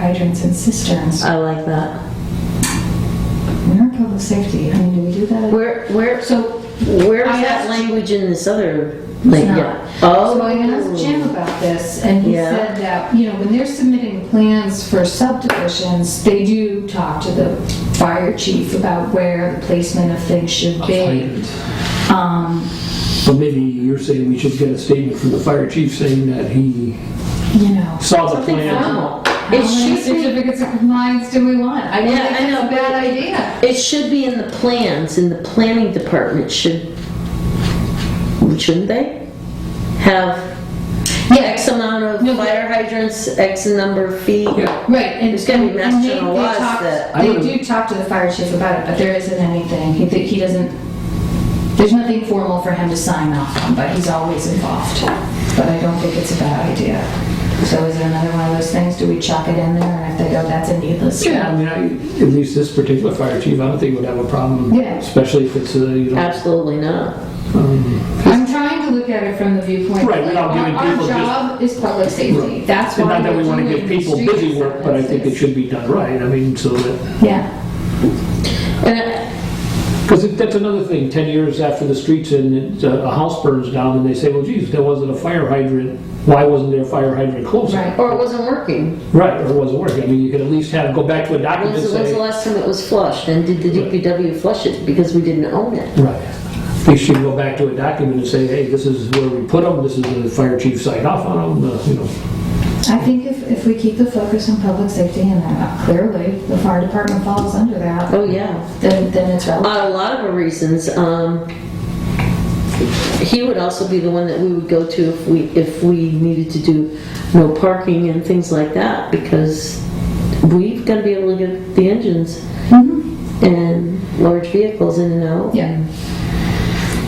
hydrants and cisterns. I like that. We're in public safety, I mean, do we do that? Where, where, So, where I is that asked- language in this other? it's Like, not. yeah. So I asked Jim about this, and he Oh, Yeah. said that, you know, when they're submitting plans for subdivisions, they do talk to the fire chief about where the placement of things should be. Um, But maybe you're saying we should get a statement from the fire chief saying that he you know. saw the Something plan. formal. How It Oh, many should be, certificates of compliance do we want? I don't Yeah, think I that's a know, but- bad idea. it should be in the plans, and the planning department should, shouldn't they? Have X amount No, of but- fire hydrants, X number of feet. Yeah, Right, and There's gonna be and mass they- general they laws talk- that- I They don't- do talk to the fire chief about it, but there isn't anything, he, thi- he doesn't, there's nothing formal for him to sign off on, but he's always involved. But I don't think it's a bad idea. So is it another one of those things, do we chuck it in there, and if they go, that's a needless Yeah, I step? mean, I, at least this particular fire chief, I don't think would have a problem, Yeah. especially if it's a, you know. Absolutely not. um, I'm trying to look at it from the viewpoint. Right, that, without like, giving our- people just- Our job is public safety, that's why. And not that we're we want to doing give people street busy work, but I think it acceptances. should be done right, I mean, so that, Yeah. And I- because that's another thing, 10 years after the streets and uh, a house burns down, and they say, well, geez, there wasn't a fire hydrant, why wasn't there a fire hydrant closer? Right. Or it wasn't working. Right, or it wasn't working, I mean, you could at least have, go back to a document and When's the, when's the say. last time it was flushed? And did the DPW flush it because we didn't own it? Right, they should go back to a document and say, hey, this is where we put them, this is the fire chief signed off on them, uh, you know. I think if, if we keep the focus on public safety and that uh, clearly the fire department falls under that, Oh, yeah. then, then it's relevant. On a lot of reasons, um, he would also be the one that we would go to if we, if we needed to do no parking and things like that because we've got to be able to get the engines and large vehicles in and out. Yeah.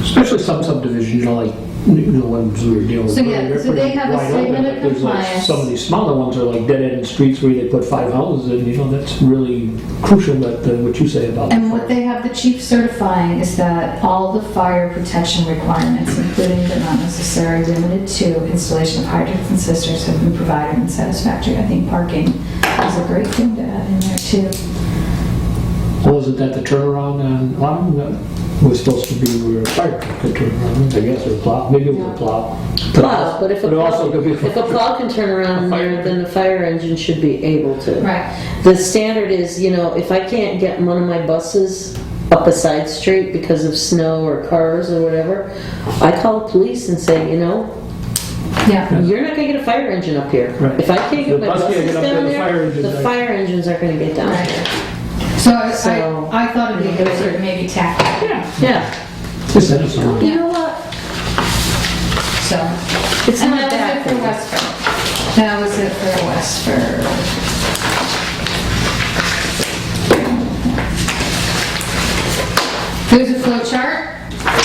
Especially some subdivisions, you know, like, you know, ones we were dealing with. So, yeah, earlier, so they pretty have a wide open, statement of but there's, like, compliance. Some of these smaller ones are like dead-end streets where they put five houses in, you know, that's really crucial, that, uh, what you say about. the And what fire. they have the chief certifying is that all the fire protection requirements, including but not necessarily limited to installation of hydrants and cisterns have been provided and satisfactory. I think parking is a great thing to add in there too. Well, Wasn't that the turnaround on, on, that was supposed to be where a fire truck could turn around, I guess, or plow, maybe it was a plow. Plow, but if a But it also plow, could be. if a plow can turn around in there, then the fire engine should be able to. Right, The standard is, you know, if I can't get one of my buses up a side street because of snow or cars or whatever, I call the police and say, you know, yeah. you're not gonna get a fire engine up here. Right. If I can't The get my bus can't buses get up there, down the fire there, engines the are- fire engines aren't gonna get down Right. here. So I, So- I I thought it'd be good to maybe tack that, Yeah, Just send us on. you know what? so. It's And not that that. was it for Westford. That was it for Westford. There's a flow chart that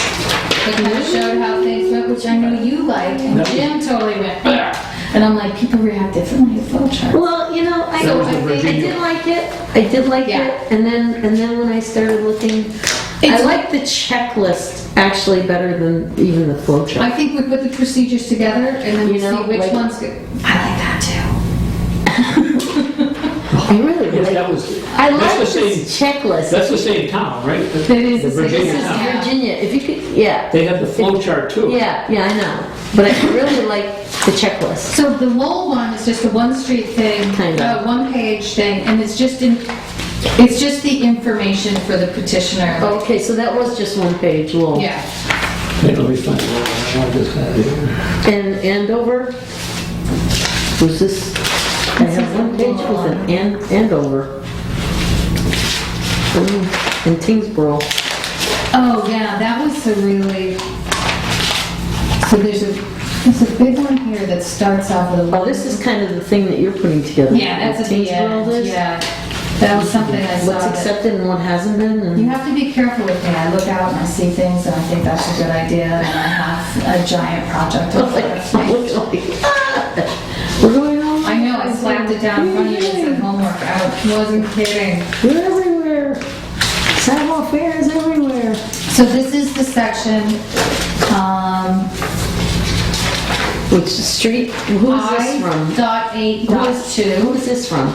kind Mm-hmm. of showed how things went, which I know you liked, and Jim totally went, "Bleh." and I'm like, people react differently to flow charts. Well, you know, I, That was the I think I Virginia. did like it, I did like Yeah. it, and then, and then when I started looking, I It's- like the checklist actually better than even the flow chart. I think we put the procedures together and then we You see know, which like- ones. go- I like that too. I really Yes, like that was, I That's like the this checklist. that's the same town, right? That is the same Virginia town. town. Virginia, if you could, yeah, They have the flow chart too. yeah, yeah, I know. But I really like the checklist. So the mole one is just a one street thing, Kinda. a one page thing, and it's just in, it's just the information for the petitioner. Okay, so that was just one page long. Yeah. Hey, Let me find it. I want this out here. And Andover, was this, I have one page with an An- Andover. Mm, And Tingsboro. Oh, yeah, that was a really, so there's a, there's a big one here that starts off with a. Oh, this is kind of the thing that you're putting together. Yeah, that's at the Tingsboro end, list, yeah. That was something I saw What's that, accepted and what hasn't been, you and, have to be careful with me, I look out and I see things and I think that's a good idea, and I have a giant project. in front of me. "Ah." we're going on. I know, I slapped it down in front of you and said homework, I wasn't kidding. We're everywhere. Sidewalk fair is everywhere. So this is the section, um, Which street, who is this I from? dot eight Who dot is- two. Who is this from?